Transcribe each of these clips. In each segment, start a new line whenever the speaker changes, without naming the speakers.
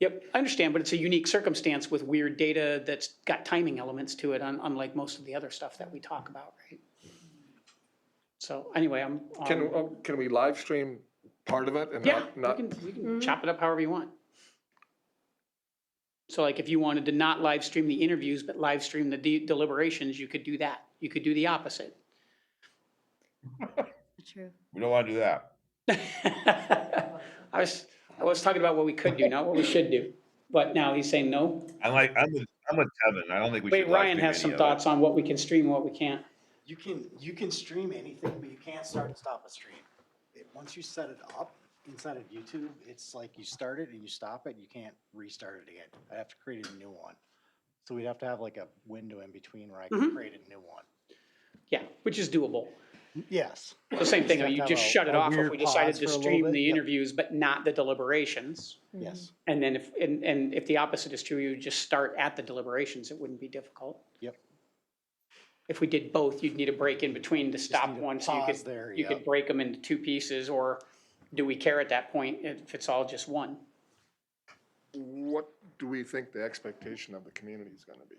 Yep, I understand, but it's a unique circumstance with weird data that's got timing elements to it, un- unlike most of the other stuff that we talk about, right? So anyway, I'm,
Can,
um,
um, can we live stream part of it and
yeah,
not,
we
not,
can, we can chop it up however you want. So like if you wanted to not live stream the interviews, but live stream the de- deliberations, you could do that. You could do the opposite.
True.
We don't want to do that.
I was, I was talking about what we could do, not what we should do. But now he's saying no.
I'm like, I'm with, I'm with Kevin. I don't think we should.
Wait, Ryan
live
has
stream
some
any of it.
thoughts on what we can stream and what we can't.
You can, you can stream anything, but you can't start and stop a stream. It, once you set it up inside of YouTube, it's like you start it and you stop it, you can't restart it again. I'd have to create a new one. So we'd have to have like a window in between where I
Mhm.
Mm-hmm.
can create a new one.
Yeah, which is doable.
Yes.
The same thing,
Just have
you
to
just
have a-
shut it
a
off if
weird
we decided
pause
to
for a little
stream
bit,
the
yep.
interviews, but not the deliberations.
Yes.
And then if, and, and if the opposite is true, you just start at the deliberations, it wouldn't be difficult.
Yep.
If we did both, you'd need a break in between to
Just
stop
need a
one, so you
pause
could,
There,
you
yeah.
could break them into two pieces, or do we care at that point if it's all just one?
what do we think the expectation of the community is gonna be?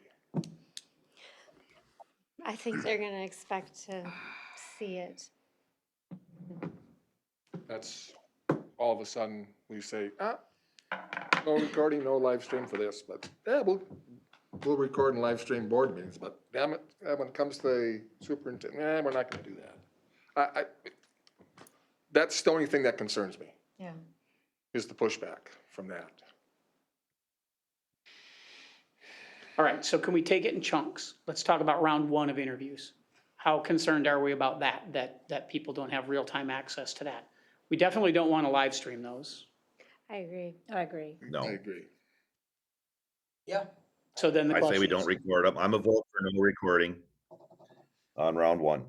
I think they're gonna expect to see it.
That's, all of a sudden, we say, ah, no recording, no live stream for this, but, yeah, we'll, we'll record and live stream board meetings, but damn it, uh, when it comes to the superintendent, eh, we're not gonna do that. I, I, that's the only thing that concerns me,
Yeah.
is the pushback from that.
All right, so can we take it in chunks? Let's talk about round one of interviews. How concerned are we about that, that, that people don't have real-time access to that? We definitely don't want to live stream those.
I agree.
I agree.
I
No,
agree.
Yeah.
So then the
I
question.
say we don't
is-
record them. I'm a vote for no recording on round one.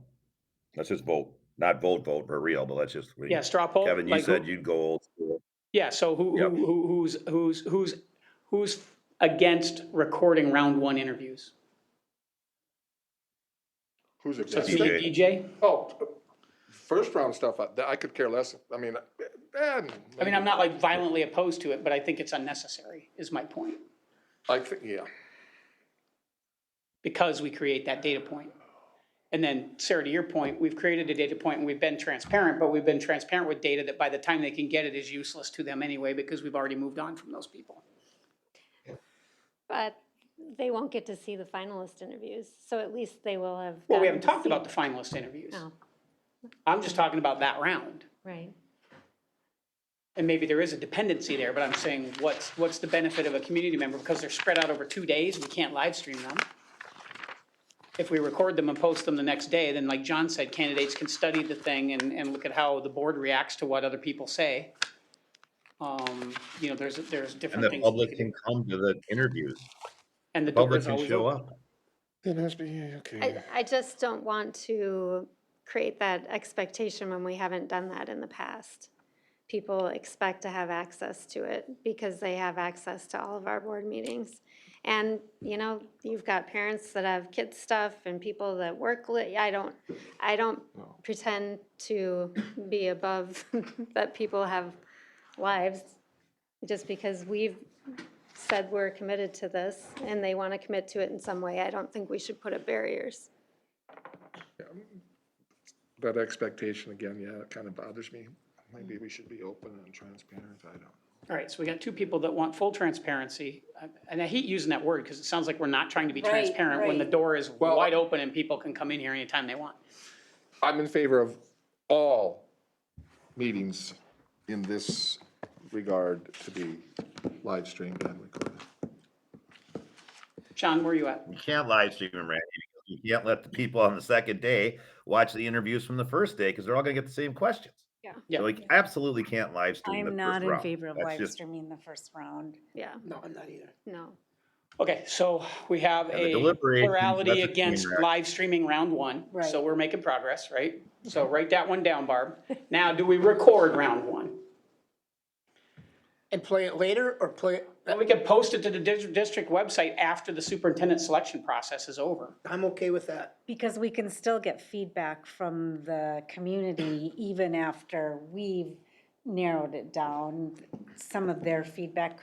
Let's just vote, not vote, vote for real, but let's just. we-
Yeah, straw poll.
Kevin, you
like who-
said you'd go old school.
Yeah, so who,
Yep.
who, who- who's, who's, who's, who's against recording round one interviews?
Who's it?
So it's me,
DJ.
DJ?
Oh, first round stuff, I, that I could care less, I mean, eh,
I mean, I'm not like violently opposed to it, but I think it's unnecessary, is my point,
I think, yeah,
because we create that data point. And then, Sarah, to your point, we've created a data point and we've been transparent, but we've been transparent with data that by the time they can get it is useless to them anyway, because we've already moved on from those people.
But they won't get to see the finalist interviews, so at least they will have.
Well, we
gotten
haven't
to
talked
see-
about the finalist interviews.
No,
I'm just talking about that round.
Oh, right.
and maybe there is a dependency there, but I'm saying, what's, what's the benefit of a community member? Because they're spread out over two days, we can't live stream them. If we record them and post them the next day, then like John said, candidates can study the thing and, and look at how the board reacts to what other people say. Um, you know, there's, there's
And
different
the
things. we
public
could
can
do.
come to the interviews.
And the door
Public
is
can
always
show
open.
up.
it has to be, okay.
I, I just don't want to create that expectation when we haven't done that in the past. People expect to have access to it because they have access to all of our board meetings. And, you know, you've got parents that have kids stuff and people that work, li- I don't, I don't pretend to be above that people have lives. Just because we've said we're committed to this and they want to commit to it in some way, I don't think we should put up barriers.
That expectation again, yeah, it kind of bothers me. Maybe we should be open and transparent, I don't.
All right, so we got two people that want full transparency, Uh, and I hate using that word, because it sounds like we're not trying to be
Right,
transparent when the
right.
door is
Well,
wide open and people can come in here anytime they want.
I'm in favor of all meetings in this regard to be live streamed and recorded.
John, where are you at?
You can't live stream them, Randy. because You can't let the people on the second day watch the interviews from the first day because they're all going to get the same questions.
Yeah.
Yeah.
So we absolutely can't live stream. the
I'm not
first
in
round.
favor of
That's
live
just-
streaming the first round.
Yeah,
No, I'm not either.
no.
Okay, so we have
And the
a
deliberation,
plurality
that's a train
against
wreck.
live streaming round one, so
Right.
we're making progress, right? So write that one down, Barb. Now, do we record round one?
And play it later or play, it-
And we can post it to the dis- district website after the superintendent selection process is over.
I'm okay with that.
Because we can still get feedback from the community even after we've narrowed it down. Some of their feedback